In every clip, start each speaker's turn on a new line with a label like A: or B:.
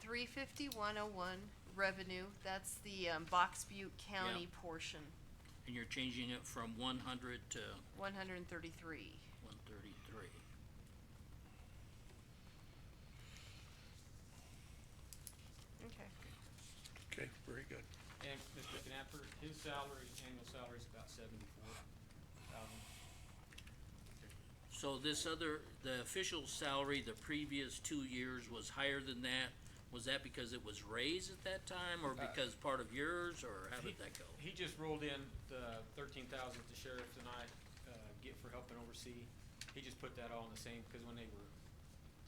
A: three fifty-one oh one, revenue, that's the, um, Box Butte County portion,
B: And you're changing it from one hundred to
A: one hundred and thirty-three.
B: one thirty-three.
A: Okay.
C: Okay, very good.
D: And Mr. Knapper, his salary, annual salary is about seventy-four thousand.
B: So this other, the official salary the previous two years was higher than that, was that because it was raised at that time, or
D: Uh,
B: because part of yours, or how did
D: he-
B: that go?
D: He just rolled in the thirteen thousand the sheriff and I, uh, get for helping oversee. He just put that all in the same, because when they were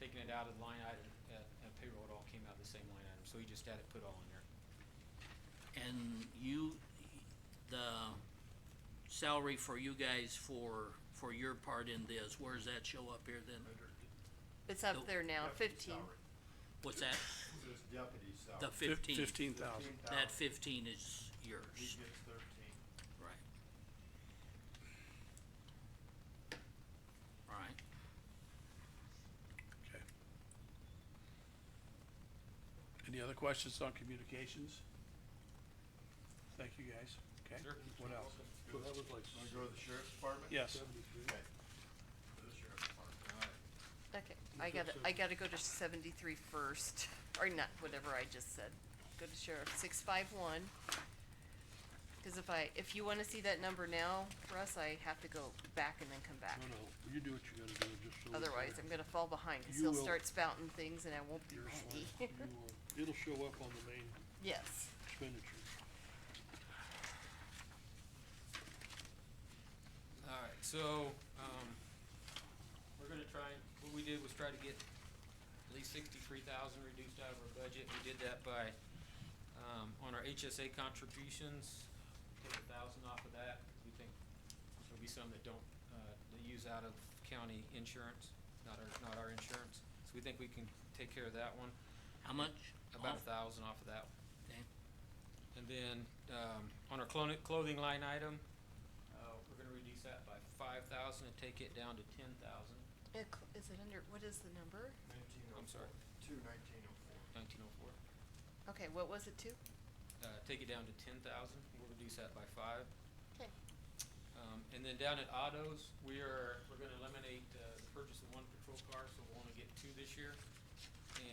D: taking it out of the line item, uh, uh, payroll, it all came out of the same line item, so he just had it put all in there.
B: And you, the salary for you guys for, for your part in this, where does that show up here then?
A: It's
B: Nope.
A: up there now,
E: Deputy
A: fifteen.
E: salary.
B: What's that,
E: This deputy salary.
B: the fifteen?
C: Fifteen thousand.
D: Uh,
B: That
E: 15,000.
B: fifteen is
E: He
B: yours,
E: gets thirteen.
B: right? Alright,
C: Okay. Any other questions on communications? Thank you, guys. Okay,
D: Sure.
C: what else?
F: So that was like
E: Wanna go to the sheriff's department?
C: Yes,
F: seventy-three.
E: Okay. Go to the sheriff's department.
A: Okay, I gotta, I gotta go to seventy-three first, or not, whatever I just said. Go to sheriff, six five one. Cause if I, if you wanna see that number now, Russ, I have to go back and then come back.
F: No, no, you do what you gotta do, just so. it's
A: Otherwise,
F: there.
A: I'm gonna fall behind, cause
F: You
A: he'll
F: will.
A: start spouting things and I won't be
F: You're
A: ready.
F: fine. You will. It'll show up on the main
A: Yes,
F: expenditure.
D: Alright, so, um, we're gonna try, and what we did was try to get at least sixty-three thousand reduced out of our budget. We did that by, um, on our HSA contributions, take a thousand off of that, 'cause we think there'll be some that don't, uh, that use out of county insurance, not our, not our insurance. So we think we can take care of that one,
B: how much?
D: about
B: Oh.
D: a thousand off of that.
B: Okay.
D: And then, um, on our clothing, clothing line item, uh, we're gonna reduce that by five thousand and take it down to ten thousand,
A: It cl- is it under, what is the number?
E: Nineteen oh
D: I'm
E: four.
D: sorry.
E: Two nineteen oh four.
D: nineteen oh four.
A: Okay, what was it to?
D: Uh, take it down to ten thousand, we'll reduce that by five.
A: 'Kay.
D: Um, and then down at autos, we are, we're gonna eliminate, uh, the purchase of one patrol car, so we'll only get two this year.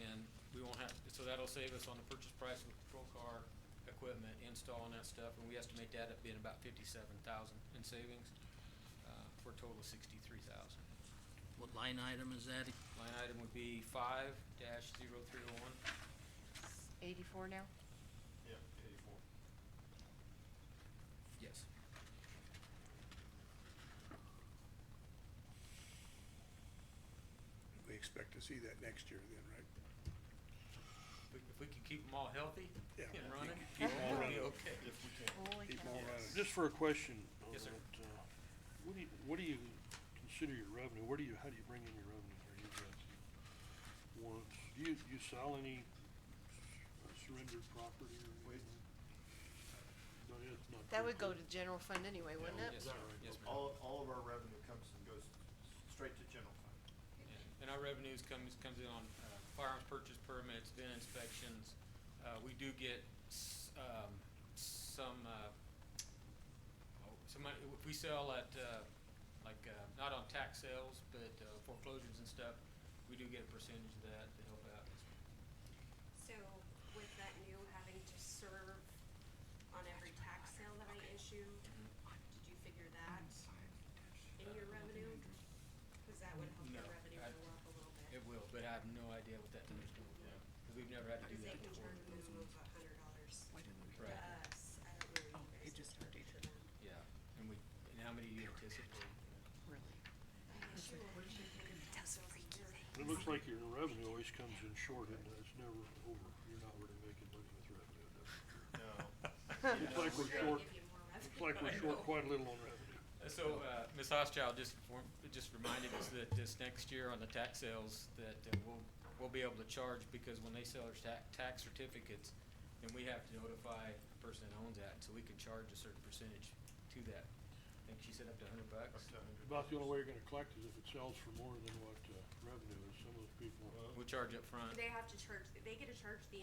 D: And we won't have, so that'll save us on the purchase price of the patrol car, equipment, install and that stuff, and we estimate that at being about fifty-seven thousand in savings, uh, for a total of sixty-three thousand.
B: What line item is that?
D: Line item would be five dash zero three oh one.
A: Eighty-four now?
E: Yeah, eighty-four.
D: Yes.
C: we expect to see that next year then, right?
D: If we- if we can keep them all healthy
C: Yeah.
D: and running,
C: Keep all
D: we'll be
C: running,
D: okay.
E: If we can.
A: Holy
C: keep
A: cow.
C: all running.
F: Just for a question on
D: Yes, sir.
F: that, uh, what do you, what do you consider your revenue? Where do you, how do you bring in your revenue? Are you just, once, do you, you sell any s- surrendered property or
E: Wait.
F: anything? No, it's not.
A: That
F: your
A: would go
F: part.
A: to general fund anyway, wouldn't it?
D: Yes, sir. Yes, ma'am.
E: All, all of our revenue comes and goes straight to general fund.
D: And our revenues comes, comes in on uh, firearms purchase permits, VIN inspections. Uh, We do get s- um, some, uh, oh, some, money- if we sell at, uh, like, uh, not on tax sales, but uh, foreclosures and stuff, we do get a percentage of that to help out.
G: So with that new having to serve on every tax sale that I issue, did you figure that in your revenue? Cause that would help
D: No,
G: your revenue
D: I-
G: go up a little bit.
D: It will, but I have no idea what that number's going to be, because we've never had to do
G: Cause they
D: that
G: can
D: before.
G: turn the minimum of a hundred dollars to
H: Why didn't we?
D: Right,
G: us. I don't know.
H: Oh, it just updated.
D: yeah. And we, and how many do you anticipate?
H: Really?
F: It looks like your revenue always comes in short and it's never over. You're not really making money with revenue. that's
E: No.
F: for sure. Looks like we're short,
G: Give you more revenue.
F: looks like we're short quite a little on revenue.
D: Uh, So, uh, Ms. Hoschild just informed, just reminded us that this next year on the tax sales, that uh, we'll, we'll be able to charge, because when they sell their tax, tax certificates, then we have to notify the person that owns that, so we can charge a certain percentage to that. I think she said up to a hundred
E: Up
D: bucks.
E: to a hundred.
F: About the only way you're gonna collect is if it sells for more than what, uh, revenue is. Some of those people.
D: We'll charge up front.
G: They have to charge, they get to charge the